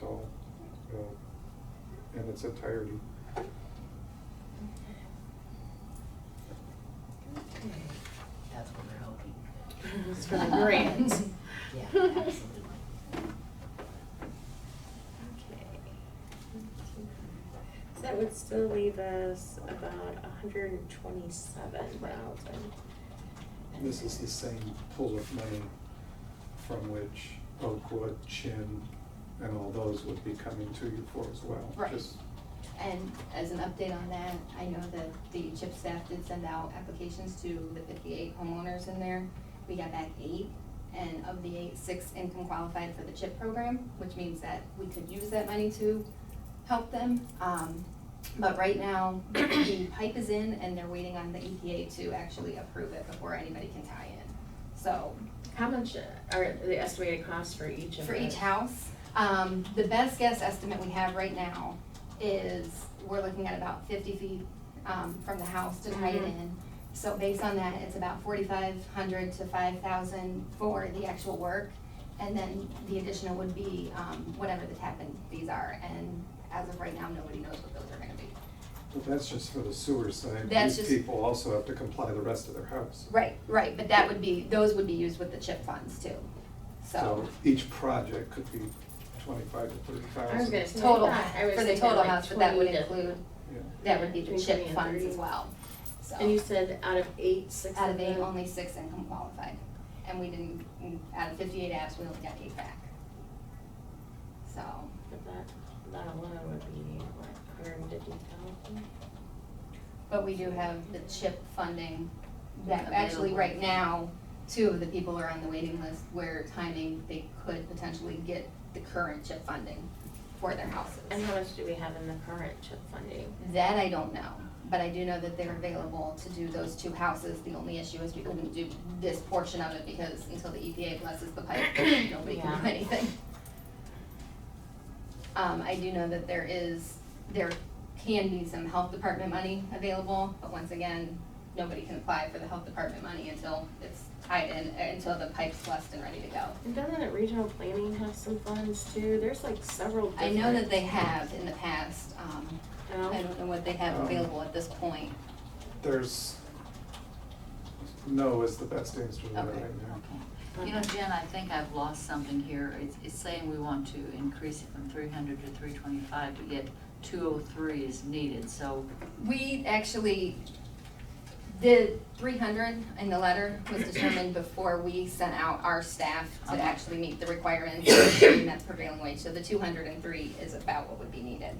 so, uh, in its entirety. That's what we're hoping. It's for the grants. Yeah, absolutely. So that would still leave us about a hundred and twenty-seven thousand. This is the same pool of money from which Oakwood, Chin, and all those would be coming to you for as well. Right. Just- And as an update on that, I know that the CHIP staff did send out applications to the fifty-eight homeowners in there. We got back eight, and of the eight, six income qualified for the CHIP program, which means that we could use that money to help them. Um, but right now, the pipe is in and they're waiting on the EPA to actually approve it before anybody can tie in. So How much are the estimated costs for each of for the- each house. Um, the best guess estimate we have right now is, we're looking at about fifty feet, um, from the house to tie it Mhm. in. So based on that, it's about forty-five hundred to five thousand for the actual work. And then the additional would be, um, whatever the tap-in fees are, and as of right now, nobody knows what those are gonna be. Well, that's just for the sewer side. That's These just- people also have to comply the rest of their house. Right, right, but that would be, those would be used with the chip funds too, so. So each project could be twenty-five to thirty thousand. I was gonna say Total, that. I was for the thinking total like house, but that would 20 to- include Yeah. That would be the Between chip 20 and funds 30. as well. So, And you said out of eight, six out of eight, them- only six income qualified. And we didn't, out of fifty-eight apps, we only got eight back. So, But that, that alone would be what, hundred and fifty thousand? but we do have the chip funding that, Available. actually, right now, two of the people are on the waiting list where timing, they could potentially get the current chip funding for their houses. And how much do we have in the current chip funding? That I don't know, but I do know that they're available to do those two houses. The only issue is we couldn't do this portion of it because until the EPA blesses the pipe, nobody can do Yeah. anything. Um, I do know that there is, there can be some health department money available, but once again, nobody can apply for the health department money until it's tied in, uh, until the pipe's blessed and ready to go. And doesn't regional planning have some funds too? There's like several I know that they have in the past, um, No? I don't know what they have Um, available at this point. There's, no is the best answer to that Okay. right now. You know, Jen, I think I've lost something here. It's, it's saying we want to increase it from three hundred to three twenty-five, but yet two oh three is needed, so We actually, the three hundred in the letter was determined before we sent out our staff to Okay. actually meet the requirements and that prevailing wage, so the two hundred and three is about what would be needed.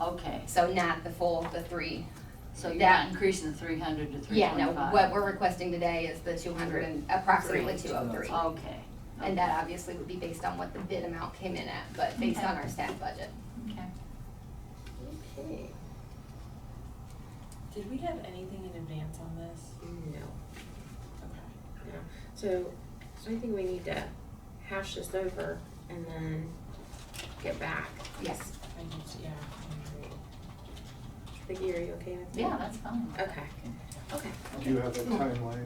Okay, So not the full, the three. so you're That- not increasing the three hundred to three Yeah, twenty-five? no, what we're requesting today is the two hundred and approximately Three. two oh three. Okay. And that obviously would be based on what the bid amount came in at, but based on our staff budget. Okay. Okay. Did we have anything in advance on this? No. Okay. No, so, so I think we need to hash this over and then get back. Yes. I need to, yeah. I agree. Vicky, are you okay with that? Yeah, that's fine. Okay, okay, Do you have a timeline?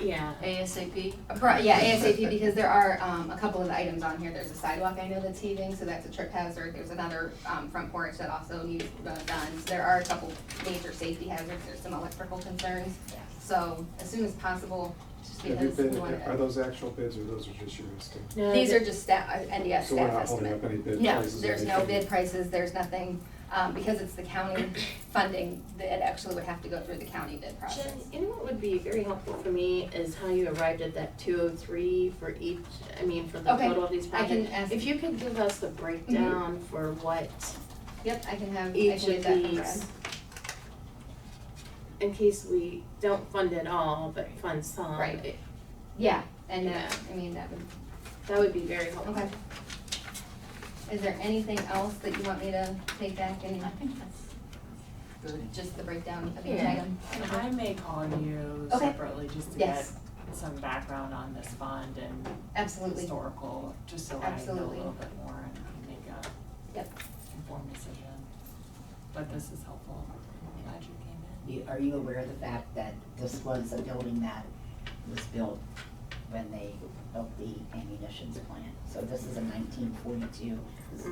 yeah. ASAP? Pro- yeah, ASAP, because there are, um, a couple of items on here, there's a sidewalk I know that's heaving, so that's a trip hazard, there's another, um, front porch that also needs uh, done. So There are a couple major safety hazards, there's some electrical concerns, so as soon as possible, just Have you because bid- we want Are to. those actual bids or those are just your estimates? No, These the- are just staff, uh, NDS So we're staff not holding up estimate. any bid No, prices? or there's no anything? bid prices, there's nothing, um, because it's the county funding, that it actually would have to go through the county bid process. Jen, you know what would be very helpful for me is how you arrived at that two oh three for each, I mean, for the Okay, total of these I projects. can ask- If you could give us the breakdown for what Yep, I can have, Mm-hmm. Um, I can each get of that from Brad. these. In case we don't fund it all, but fund some. Right. it- Yeah, and that, I mean, that would That would be very helpful. Okay. Is there anything else that you want me to take back and I think that's good. just the breakdown of each Yeah. item? And I may call you Okay. separately just to get Yes, some background on this fund and absolutely. historical, just so I know a Absolutely. little bit more and can make a Yep. informed decision. But this is helpful. I'm Glad you came in. You- Are you aware of the fact that this was a building that was built when they built the ammunition plant? So this is a nineteen forty-two, this is